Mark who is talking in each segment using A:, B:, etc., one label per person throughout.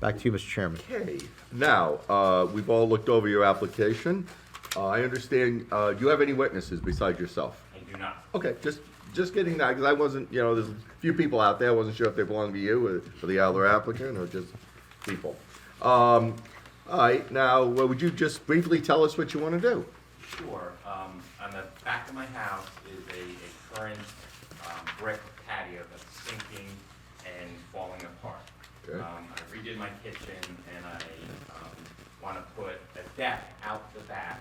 A: Back to you, Mr. Chairman.
B: Okay, now, uh, we've all looked over your application. Uh, I understand, uh, do you have any witnesses besides yourself?
C: I do not.
B: Okay, just, just getting that, because I wasn't, you know, there's a few people out there, I wasn't sure if they belong to you or to the other applicant, or just people. Um, all right, now, well, would you just briefly tell us what you want to do?
C: Sure, um, on the back of my house is a, a current, um, brick patio that's sinking and falling apart.
B: Okay.
C: Um, I redid my kitchen and I, um, wanna put a deck out the back,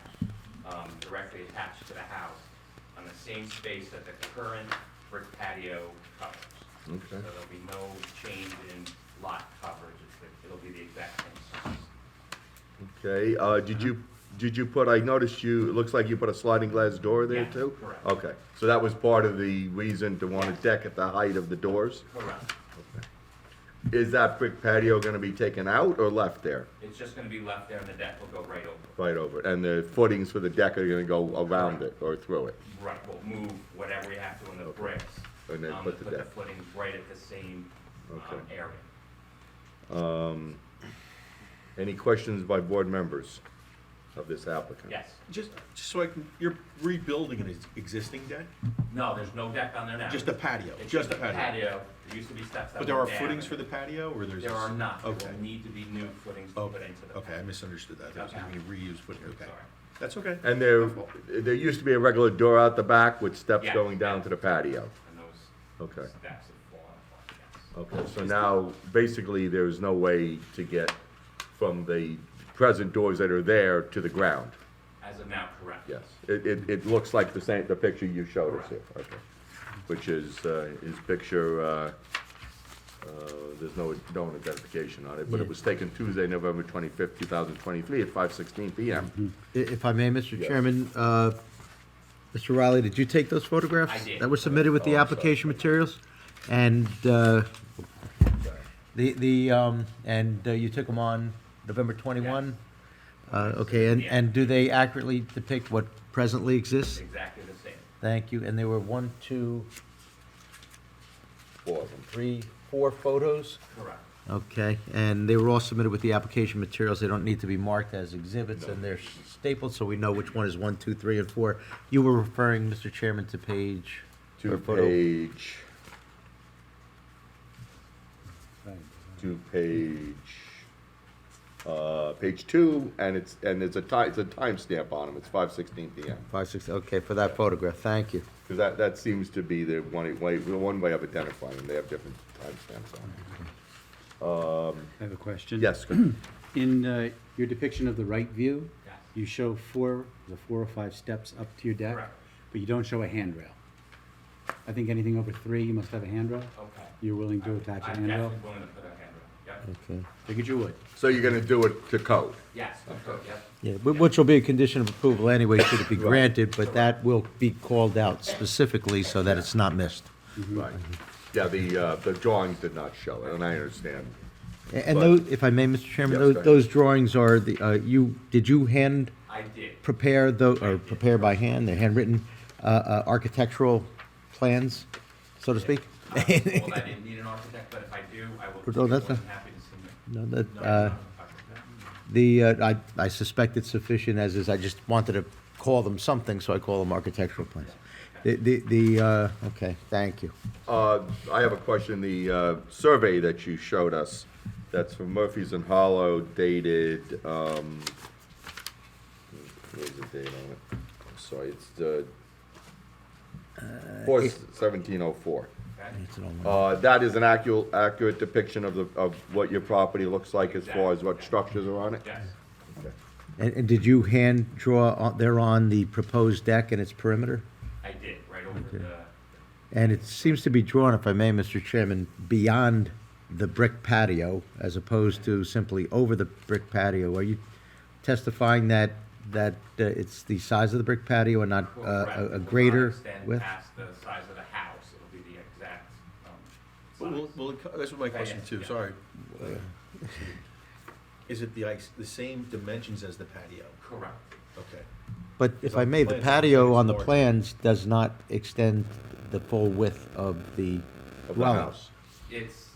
C: um, directly attached to the house on the same space that the current brick patio covers.
B: Okay.
C: So there'll be no change in lot coverage, It's- it'll be the exact same size.
B: Okay, uh, did you, did you put, I noticed you, it looks like you put a sliding glass door there
C: Yeah,
B: too?
C: correct.
B: Okay, so that was part of the reason to want a
C: Yes.
B: deck at the height of the doors?
C: Correct.
B: Is that brick patio gonna be taken out or left there?
C: It's just gonna be left there and the deck will go right over it.
B: Right over it, and the footings for the deck are gonna go around it or through it?
C: Right, we'll move whatever we have to in the bricks.
B: And then
C: um,
B: put
C: to
B: the deck.
C: footings right at the same um,
B: Okay.
C: area.
B: Any questions by board members of this applicant?
C: Yes.
D: Just, just so I can, you're rebuilding an ex- existing deck?
C: No, there's no deck on there now.
D: Just a patio,
C: It's
D: just a patio?
C: There used to be steps that
D: But there are
C: went down.
D: footings for the patio, or there's?
C: There are not. There
D: Okay,
C: will need to be new footings to put
D: okay,
C: into the.
D: okay, I misunderstood that, there was gonna be reused footing, okay.
C: Sorry.
D: That's okay.
B: And there, there used to be a regular door out the back with steps
C: Yeah.
B: going down to the patio?
C: And
B: Okay.
C: those steps have fallen apart, yes.
B: Okay, so now, basically, there's no way to get from the present doors that are there to the ground?
C: As of now, correct.
B: Yes, it, it, it looks like the same, the picture you showed us here, okay. Which is, uh, is picture, uh, uh, there's no, no identification on it, but it was taken Tuesday, November twenty-fifth, two thousand twenty-three, at five sixteen PM.
A: I- If I may, Mr.
B: Yes.
A: Chairman, uh, Mr. Riley, did you take those photographs?
C: I did.
A: That were submitted with the
B: Oh, I'm sorry.
A: application materials? And uh, the, the, um, and uh, you took them on November 21? Uh, Okay, and,
C: Yeah.
A: and do they accurately depict what presently exists?
C: Exactly the same.
A: Thank you, and there were one, two,
B: Four of them.
A: three, four photos?
C: Correct.
A: Okay, and they were all submitted with the application materials, they don't need to be marked as exhibits, and they're stapled, so we know which one is one, two, three, and four. You were referring, Mr. Chairman, to page. or
B: Two
A: photo-
B: page. Two page, uh, page two, and it's, and it's a ti- it's a timestamp on them, it's five sixteen PM.
A: Five, six, okay, for that photograph, thank you.
B: Because that, that seems to be the one way, the one way of identifying them, they have different timestamps on it.
E: I have a question.
B: Yes, good.
E: In uh, your depiction of the right view,
C: Yes.
E: you show four, the four or five steps up to your deck,
C: Correct.
E: but you don't show a handrail. I think anything over three, you must have a handrail.
C: Okay.
E: You're willing to attach a
C: Oh. I'm
E: handrail?
C: definitely willing to put a handrail. Yep.
A: Okay.
E: Figured you would.
B: so you're gonna do it to code?
C: Yes, okay, yep.
A: Yeah, whi- which will be a condition of approval anyway, should it be granted, but that will be called out specifically so that it's not missed.
B: Right. Yeah, the, uh, the drawings did not show it, and I understand.
A: A- And
B: But-
A: those, if I may, Mr. Chairman,
B: Yes,
A: tho-
B: go ahead.
A: those drawings are the, uh, you, did you hand
C: I did.
A: prepare tho, or prepare by hand, they're handwritten, uh, uh, architectural plans, so to speak?
C: Uh, Well, I didn't need an architect, but if I do, I will.
A: No, that's not-
C: be more than Happy to submit.
A: No, that,
C: No, I'm
A: uh,
C: not an architect.
A: the, uh, I, I suspect it's sufficient as is, I just wanted to call them something, so I call them architectural plans. The, the, the, uh, okay, thank you.
B: Uh, I have a question, the, uh, survey that you showed us, that's from Murphy's and Hollow dated, um, where's the date on it? I'm sorry, it's the, four seventeen oh four.
C: Okay?
A: It's an old one.
B: Uh, that is an accurate, accurate depiction of the, of what your property looks like as far as what structures are on it?
C: Yes,
B: Okay.
A: And, and did you hand draw on, there on the proposed deck and its perimeter?
C: I did, right over the,
A: And it seems to be drawn, if I may, Mr. Chairman, beyond the brick patio as opposed to simply over the brick patio. Are you testifying that, that uh, it's the size of the brick patio and not uh,
C: correct,
A: a-
C: it will
A: a
C: not
A: greater
C: extend
A: width?
C: past the size of the house, it'll be the exact,
D: But
C: um,
D: will,
C: size.
D: will it co- that's what my question
C: yes,
D: too,
C: yeah.
D: sorry. Is it the ice, the same dimensions as the patio?
C: Correct,
D: Okay.
A: But if I may, the
D: Plans,
A: patio
D: it's
A: on the
D: large.
A: plans does not extend the full width of the
B: Of the
A: dwelling.
B: house.
C: it's